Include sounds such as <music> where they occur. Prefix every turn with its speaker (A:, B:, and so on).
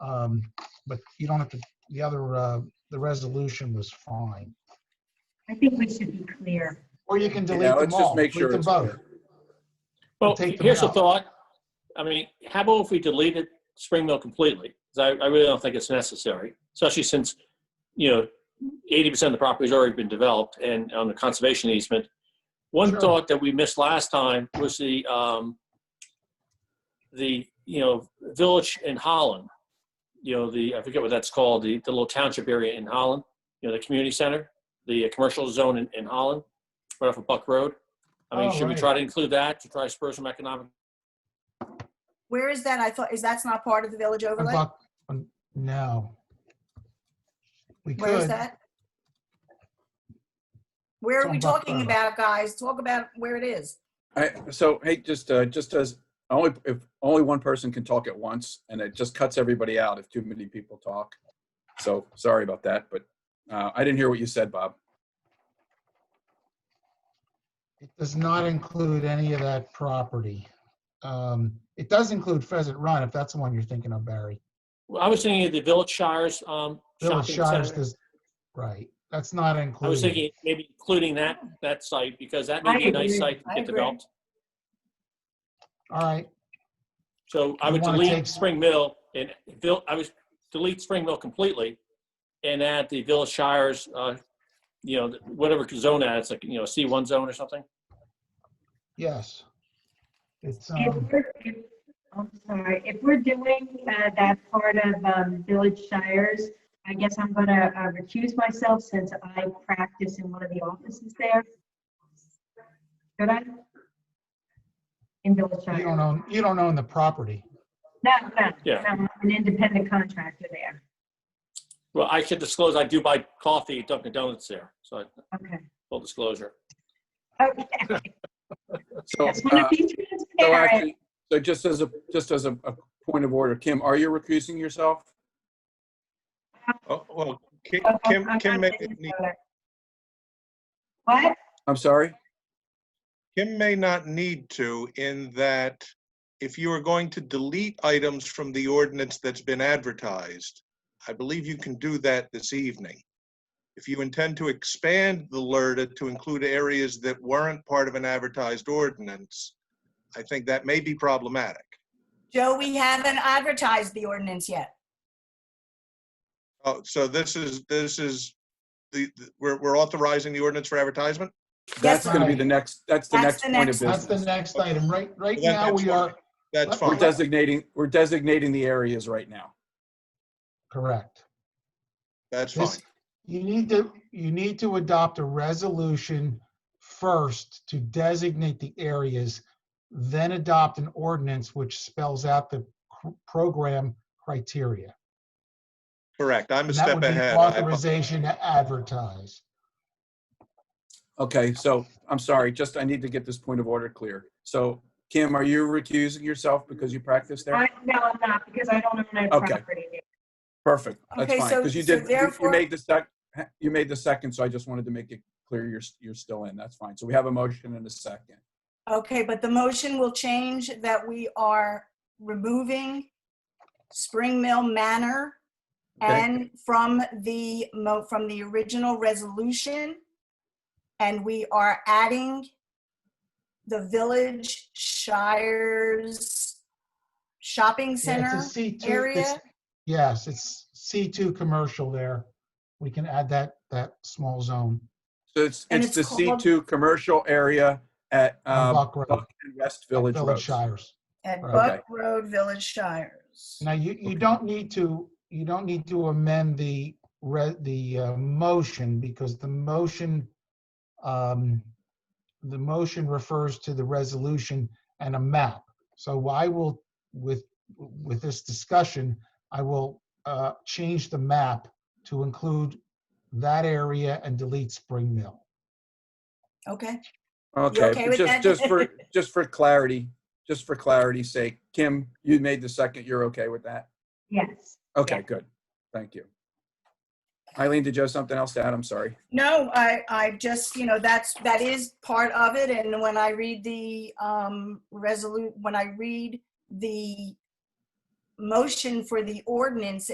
A: Um, But you don't have to, the other, uh, the resolution was fine.
B: I think we should be clear.
A: Or you can
C: Yeah,
A: delete them
C: let's just
A: all.
C: make sure
A: delete
C: it's
A: them both.
C: clear.
A: We'll
D: Well,
A: take them
D: here's a
A: out.
D: thought. I mean, how about if we deleted Spring Mill completely? 'Cause I, I really don't think it's necessary, especially since, you know, eighty percent of the property's already been developed and on the conservation easement. One
A: Sure.
D: thought that we missed last time was the, um, the, you know, village in Holland. You know, the, I forget what that's called, the, the little township area in Holland, you know, the community center, the uh, commercial zone in, in Holland, right off of Buck Road. I mean,
A: Oh,
D: should we
A: right.
D: try to include that to try to spur some economic?
E: Where is that? I thought, is that's not part of the village
A: And
E: overlay?
A: Buck- um, No. We
E: Where is
A: could,
E: that? Where
A: It's
E: are we
A: on Buck
E: talking
A: Road.
E: about, guys? Talk about where it is.
C: I, so hey, just uh, just as only if only one person can talk at once, and it just cuts everybody out if too many people talk. So sorry about that, but uh, I didn't hear what you said, Bob.
A: it does not include any of that property. Um, It does include Pheasant Run, if that's the one you're thinking of, Barry.
D: Well, I was thinking of the Village Shires um,
A: Village
D: shopping
A: Shires
D: center.
A: does, right, that's not
D: I was
A: included.
D: thinking maybe including that that site because that
B: I
D: may be a nice
B: agree.
D: site to
B: I
D: get
B: agree.
D: developed.
A: All right,
D: So I
A: You
D: would
A: wanna
D: delete
A: take-
D: Spring Mill and Vill, I would delete Spring Mill completely and add the Village Shires, uh, you know, whatever zone that, it's like, you know, C1 zone or something.
A: yes. It's,
B: If
A: um,
B: we're, if, I'm sorry, if we're doing uh, that part of um, Village Shires, I guess I'm gonna uh, recuse myself since I practice in one of the offices there. Should I? In Village
A: you
B: Shires?
A: don't own, you don't own the property.
B: No, no, no,
D: Yeah.
B: I'm an independent contractor there.
D: Well, I should disclose, I do buy coffee at Dunkin' Donuts there. So
B: Okay.
D: full disclosure.
B: Okay,
C: So,
B: just wanna
C: uh,
B: be
C: so,
B: transparent.
C: actually, so just as a just as a, a point of order, Kim, are you recusing yourself?
F: Oh, well, Ki-
B: Oh,
F: Kim,
B: I'm
F: Kim
B: not
F: may,
B: getting
F: need-
B: started. What?
C: I'm sorry.
F: Kim may not need to in that if you are going to delete items from the ordinance that's been advertised, I believe you can do that this evening. If you intend to expand the LERTA to include areas that weren't part of an advertised ordinance, I think that may be problematic.
E: Joe, we haven't advertised the ordinance yet.
F: Oh, so this is, this is, the, the- we're, we're authorizing the ordinance for advertisement?
C: That's going to be
A: right.
C: the next. That's the
E: That's
C: next
E: the
C: point
E: next-
C: of
A: That's the
C: business.
A: next item. Right, right
F: That-
A: now,
F: that's
A: we
F: fine.
A: are,
F: That's
A: We're
C: We're
F: fine.
C: designating. We're designating the areas right now.
A: correct.
F: That's fine.
A: This- You need to, you need to adopt a resolution first to designate the areas, then adopt an ordinance which spells out the cr- program criteria.
F: Correct. I'm a
A: And that
F: step
A: would be
F: ahead. I apologize.
A: Authorization to advertise.
C: Okay, so I'm sorry, just I need to get this point of order clear. So Kim, are you recusing yourself because you practice there?
B: I, no, I'm not, because I don't own a
C: Okay.
B: property there.
C: Perfect, that's
E: Okay,
C: fine,
E: so-
C: because you
E: so
C: did, you- you
E: therefore-
C: made the sec, you made the second, so I just wanted to make it clear you're, s- you're still in, that's fine. So we have a motion and a second.
E: Okay, but the motion will change that we are removing Spring Mill Manor
C: Okay.
E: and from the mo, from the original resolution. And we are adding the Village Shires Shopping
A: Yeah,
E: Center
A: it's a C2
E: area.
A: it's- Yes, it's C2 commercial there. We can add that, that small zone
C: So it's,
E: And
C: it's the
E: it's called-
C: C2 commercial area at,
A: on
C: um,
A: Buck Road,
C: Buck and West Village
A: Village
C: Road.
A: Shires.
E: At
A: Right.
E: Buck Road Village Shires.
A: Now, you, you don't need to, you don't need to amend the, re- the uh, motion because the motion, um, the motion refers to the resolution and a map. So I will, with, with this discussion, I will uh, change the map to include that area and delete Spring Mill.
E: Okay, okay
C: Okay, but
E: with
C: just,
E: that?
C: just
E: <laughs>
C: for, just for clarity, just for clarity's sake, Kim, you made the second, you're okay with that?
B: Yes.
C: Okay,
B: Yeah.
C: good. Thank you. Eileen, did you have something else to add? I'm sorry.
E: no, I, I just, you know, that's, that is part of it, and when I read the, um, resolute, when I read the motion for the ordinance